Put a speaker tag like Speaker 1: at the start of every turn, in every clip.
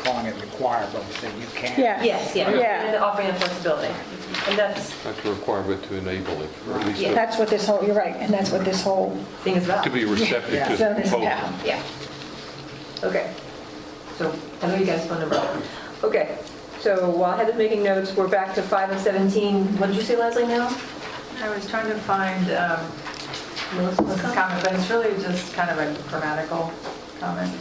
Speaker 1: strong as required, but we said you can't.
Speaker 2: Yeah.
Speaker 3: Yes, yeah,
Speaker 2: Yeah.
Speaker 3: and offering the flexibility. And that's, the
Speaker 4: That's a requirement to enable it, or at least
Speaker 3: Yeah.
Speaker 4: to
Speaker 2: That's what this whole, you're right, and that's what this whole
Speaker 3: thing as well.
Speaker 4: to be receptive to
Speaker 2: zone
Speaker 4: the
Speaker 2: is
Speaker 4: proposal.
Speaker 2: about.
Speaker 3: Yeah. Okay. So I know you guys phone number. Okay, so while Heather's making notes, we're back to 5 and 17. What did you say, Leslie, now?
Speaker 5: I was trying to find um, Melissa's comment, but it's really just kind of a grammatical comment.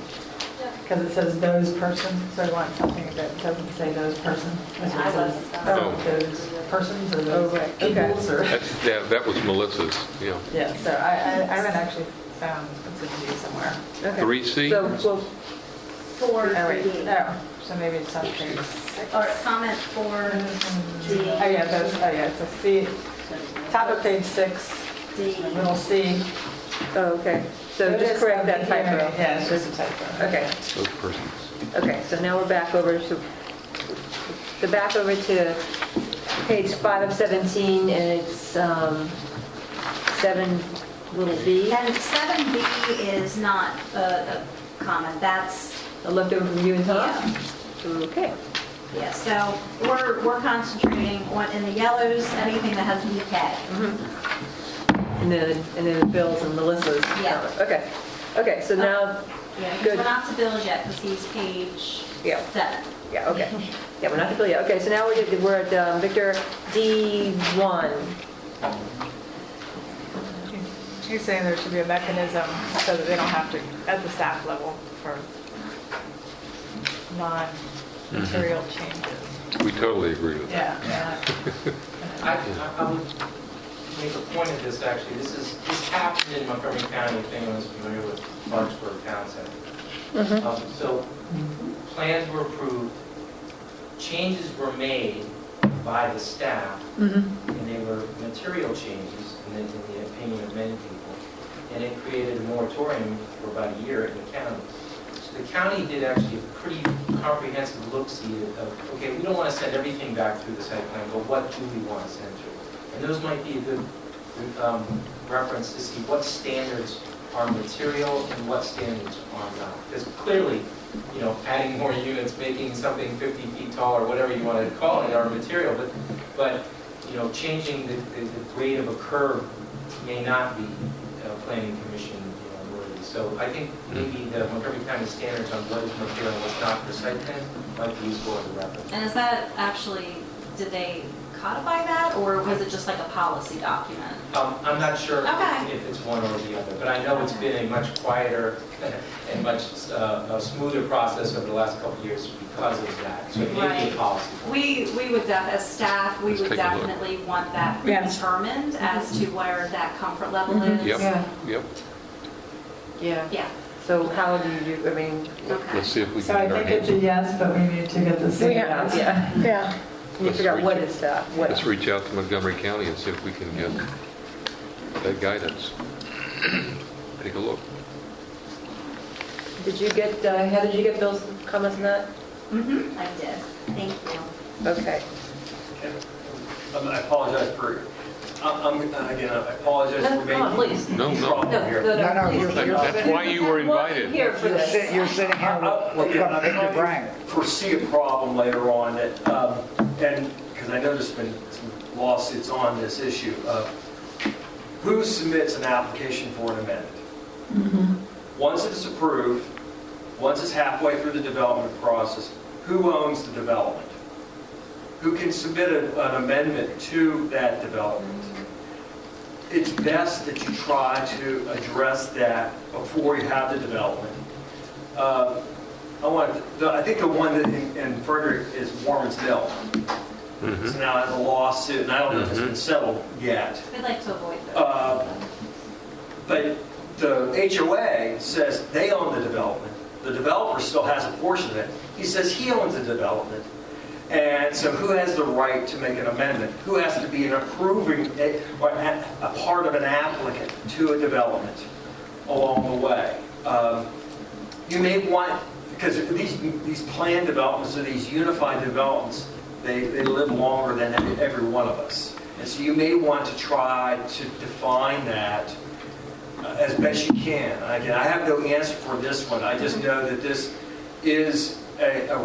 Speaker 5: Because it says those person, so I want something that doesn't say those person. It says,
Speaker 6: uh,
Speaker 4: Oh.
Speaker 5: Oh, those persons or those
Speaker 3: Oh, right, okay.
Speaker 5: peoples or,
Speaker 4: That's, yeah, that was Melissa's, yeah.
Speaker 5: yeah, so I I I haven't actually found what's in G somewhere.
Speaker 3: Okay.
Speaker 4: 3C?
Speaker 3: So we'll
Speaker 6: Four
Speaker 5: Oh,
Speaker 6: for
Speaker 5: wait,
Speaker 6: D,
Speaker 5: no, so maybe it's on page six.
Speaker 6: or comment four D.
Speaker 5: Oh, yeah, those, oh, yeah, it's a C, top of page six,
Speaker 6: D.
Speaker 5: little C.
Speaker 3: Oh, okay. So
Speaker 5: Notice
Speaker 3: just correct that
Speaker 5: of the hearing.
Speaker 3: typo.
Speaker 5: Yeah, it's just a typo.
Speaker 3: Okay,
Speaker 4: Those persons.
Speaker 3: okay, so now we're back over to, the back over to page 5 of 17, and it's um, 7 little b.
Speaker 6: And seven B is not a a comment, that's,
Speaker 3: I left over from you and Tom.
Speaker 6: yeah,
Speaker 3: Okay.
Speaker 6: yeah, so we're, we're concentrating on, in the yellows, anything that has E VK.
Speaker 5: Mm-hmm.
Speaker 3: And then, and then Bill's and Melissa's.
Speaker 6: Yeah.
Speaker 3: Okay, okay, so now,
Speaker 6: Yeah, because
Speaker 3: Good.
Speaker 6: we're not to Bill's yet, because he's page
Speaker 3: Yeah.
Speaker 6: seven.
Speaker 3: yeah, okay. Yeah, we're not completely, okay, so now we're at, we're at um, Victor D1.
Speaker 5: She's saying there should be a mechanism so that they don't have to, at the staff level, for non-material changes.
Speaker 4: We totally agree with that.
Speaker 5: Mm-hmm. Yeah.
Speaker 7: I, I- I would make a point of this, actually, this is, this happened in Montgomery County, if anyone's familiar with Lawrenceburg Town Center. Um, So, plans were approved, changes were made by the staff, and they were material changes, in the, in the opinion of many people, and it created a moratorium for about a year in the county. So the county did actually a pretty comprehensive look-see of, okay, we don't want to send everything back through the site plan, but what do we want to send through? And those might be a good um, reference to see what standards are material and what standards are not. Because clearly, you know, adding more units, making something 50 feet tall, or whatever you want to call it, are material, but, but, you know, changing the, the the grade of a curve may not be uh, planning commission you know, worthy. So I think maybe the Montgomery County standards on what is material and what's not for site plan might be useful as a reference.
Speaker 6: And is that actually, did they codify that, or was it just like a policy document?
Speaker 7: Um, I'm not sure
Speaker 6: Okay.
Speaker 7: if it's one or the other, but I know it's been a much quieter and much uh, a smoother process over the last couple of years because of that. So it may be a
Speaker 6: Right.
Speaker 7: policy.
Speaker 6: We, we would, def- as staff, we
Speaker 4: Let's
Speaker 6: would
Speaker 4: take a look. Mm-hmm.
Speaker 6: definitely want that
Speaker 2: Yes.
Speaker 6: determined as to where that comfort level is.
Speaker 4: Yep.
Speaker 5: Yeah.
Speaker 4: Yep,
Speaker 5: Yeah.
Speaker 6: Yeah,
Speaker 3: So how do you, do? I mean, uh,
Speaker 6: okay.
Speaker 4: let's see if we
Speaker 5: So
Speaker 4: can
Speaker 5: I
Speaker 4: get our
Speaker 5: think it's
Speaker 4: hands.
Speaker 5: a yes, but we need to get the
Speaker 2: We
Speaker 5: C
Speaker 2: have-
Speaker 5: out.
Speaker 3: yeah,
Speaker 2: Yeah,
Speaker 3: you
Speaker 4: Let's
Speaker 3: figure out
Speaker 4: reach-
Speaker 3: what is that, what.
Speaker 4: Let's reach out to Montgomery County and see if we can get that guidance. Take a look.
Speaker 3: Did you get, uh, Heather, did you get Bill's comments on that?
Speaker 6: Mhm, I did, thank you.
Speaker 3: Okay.
Speaker 8: Um, I apologize for, I'm, I'm- again, I apologize
Speaker 3: No,
Speaker 8: for making.
Speaker 3: come on, please.
Speaker 4: No, no.
Speaker 8: trouble
Speaker 3: No,
Speaker 8: here.
Speaker 3: no,
Speaker 1: No, no,
Speaker 3: no, please.
Speaker 1: you're-
Speaker 4: That- That's why you were invited.
Speaker 3: Here for
Speaker 1: You're sit-
Speaker 3: this.
Speaker 1: you're sitting here with- with
Speaker 8: Yeah, I'm
Speaker 1: Victor
Speaker 8: trying to
Speaker 1: Brang.
Speaker 8: Foresee a problem later on that, um, and, because I know there's been some lawsuits on this issue of who submits an application for an amendment? Once it's approved, once it's halfway through the development process, who owns the development? Who can submit a- an amendment to that development? It's best that you try to address that before you have the development. Uh, I want, the- I think the one that in- in Frederick is Warren's Mill. It's now has a lawsuit, and I don't know if it's been settled yet.
Speaker 6: I'd like to avoid
Speaker 8: Uh,
Speaker 6: those.
Speaker 8: But the HOA says they own the development. The developer still has a portion of it. He says he owns the development. And so who has the right to make an amendment? Who has to be an approving, eh, or a a part of an applicant to a development along the way? Um, You may want, because these, these planned developments or these unified developments, they, they live longer than every one of us. And so you may want to try to define that uh, as best you can. Again, I have no answer for this one, I just know that this is a, a